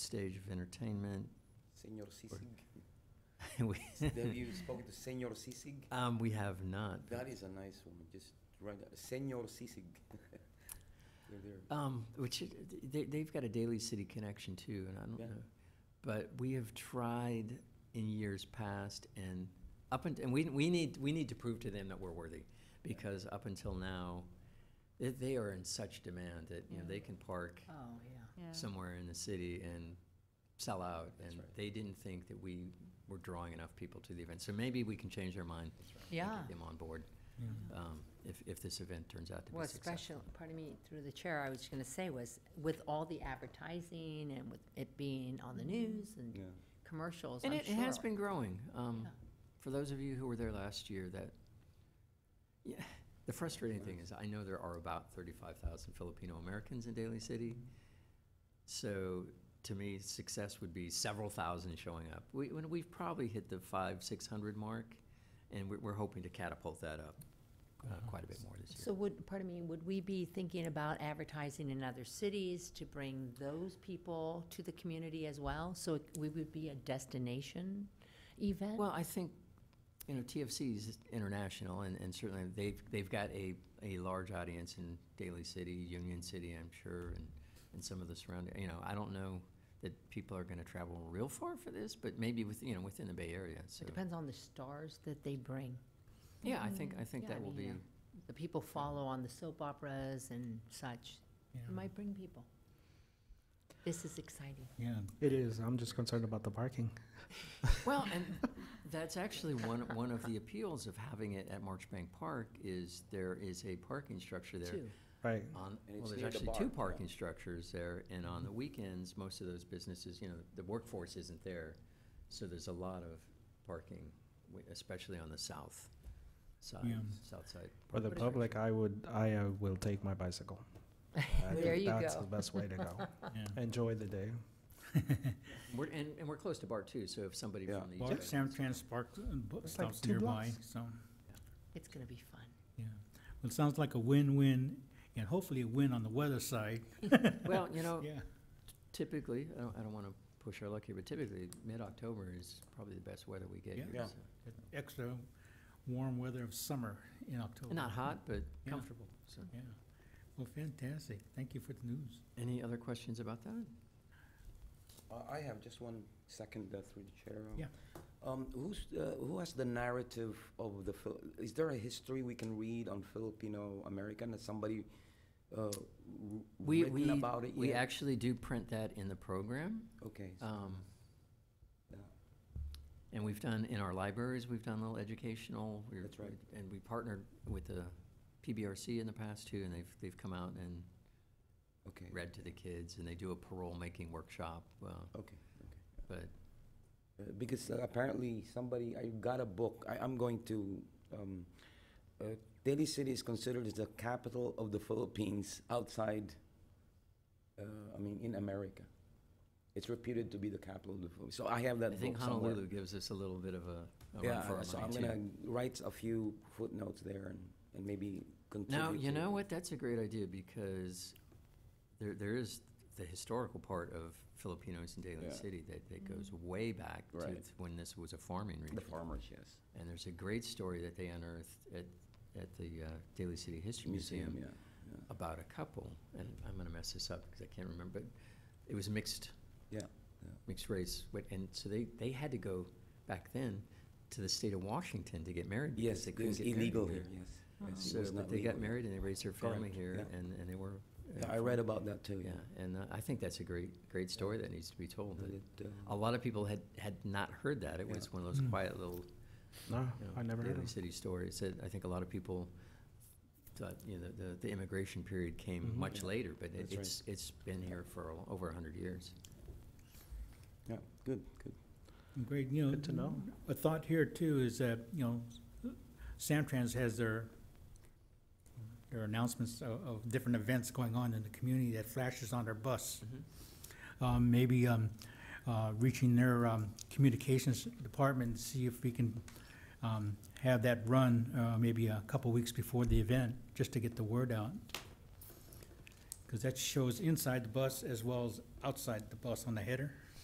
stage of entertainment. Senor Sisig. We- Have you spoken to Senor Sisig? Um, we have not. That is a nice woman, just write that, Senor Sisig. They're there. Um, which, it- they, they've got a Daily City connection too, and I don't Yeah. know. But we have tried in years past and up and, and we, we need, we need to prove to them that we're worthy. Because up until now, they, they are in such demand that, you know, Yeah. they can park Oh, yeah. Yeah. somewhere in the city and sell out. That's And right. they didn't think that we were drawing enough people to the event. So maybe we can change their mind. and get Yeah. Them on board, um, if, if this event turns out to be Well, successful. special, pardon me, through the chair, I was going to say was, with all the advertising and with it being on the news Yeah. and commercials, And I'm it it has sure. been growing. Um, Yeah. For those of you who were there last year, that, yeah, the frustrating thing is, I know there are about 35,000 Filipino-Americans in Daly City. So to me, success would be several thousand showing up. We, when we've probably hit the five, 600 mark, and we're, we're hoping to catapult that up uh, quite a bit more this Mm-hmm. So year. would, pardon me, would we be thinking about advertising in other cities to bring those people to the community as well? So it- we would be a destination event? Well, I think, you know, TFC is international, and, and certainly they've, they've got a, a large audience in Daly City, Union City, I'm sure, and, and some of the surrounding, you know, I don't know that people are gonna travel real far for this, but maybe with, you know, within the Bay Area, so. It depends on the stars that they bring. Yeah, I think, I think Yeah, that will mean, be, uh, The people follow on the soap operas and such. It might bring people. This is exciting. Yeah, it is. I'm just concerned about the parking. well, and that's actually one, one of the appeals of having it at Marchbank Park is there is a parking structure there. Two. Right. On, And it's well, there's near the actually bar, two yeah. parking structures there, and on the weekends, most of those businesses, you know, the workforce isn't there, so there's a lot of parking, wi- especially on the south Yeah. side, south side. For the parking public, I would, I uh, will take my bicycle. I There think you That's go. the best way to go. Enjoy the day. structure. We're, and, and we're close to bar too, so if somebody Yeah. from the. east Well, side- Samtrans Park uh, bu- like stops two nearby, blocks. so, It's going to be fun. yeah. Well, it sounds like a win-win, and hopefully a win on the weather side. Well, you know, Yeah, typically, I don't, I don't wanna push our luck here, but typically, mid-October is probably the best weather we get Yeah. here, Yeah. so. extra warm weather of summer in October. Not hot, but Yeah. comfortable, so. Yeah. Well, fantastic. Thank you for the news. Any other questions about that? Uh, I have just one second uh, through the chair. Yeah. Um, who's, uh, who has the narrative of the, Phil- is there a history we can read on Filipino-American? Has somebody uh, r- We, written we, about it we yet? actually do print that in the program. Okay. so, Um, yeah. And we've done, in our libraries, we've done little educational. we're- That's right. And we partnered with the PBRC in the past too, and they've, they've come out and Okay. read to the kids, and they do a parole-making workshop. uh, Okay, okay. But, Uh, because uh, apparently somebody I got a book. I, I'm going to. Um, uh, Daly City is considered as the capital of the Philippines outside. Uh, I mean, in America, it's reputed to be the capital of the Philippines. So I have that I think book somewhere. Honolulu gives us a little bit of a a run for Yeah, our so I'm money, gonna too. write a few footnotes there and, and maybe contribute. Now, you to- know what, that's a great idea, because there, there is the historical part of Filipinos in Daly Yeah. Mm-hmm. City that, that goes way back to Right. when this was a farming region. The farmers, yes. And there's a great story that they unearthed at, at the uh, Daly City History Museum, Museum yeah. yeah. about a couple, and I'm going to mess this up because I can't remember, but it was mixed, Yeah, yeah. mixed race. But- And so they, they had to go back then to the state of Washington to get married because Yes, they it couldn't was get married. Uh-huh. illegal here, yes. yes, it So, was but not they got legal. married and they raised their family Correct, here, yeah. and, and they were. uh, Yeah, I read about that too, Yeah, yeah. and uh, I think that's a great, great story that needs to be told. Yeah, that it, uh, A lot of people had, had not heard that. It was Yeah. one of those quiet little No, you know, I never heard Daly of it. City stories that I think a lot of people thought, you know, the, the immigration period Mm-hmm. came much later, but it- That's right. it's, it's been here for a- over a hundred years. Yeah, good, good. Great, you know. Good to know. A thought here too is that, you know, Samtrans has their, their announcements of, of different events going on in the community that flashes on their bus. Mm-hmm. Um, maybe, um, uh, reaching their, um, communications department, see if we can, um, have that run, uh, maybe a couple weeks before the event, just to get the word out. Because that shows inside the bus as well as outside the bus on the header.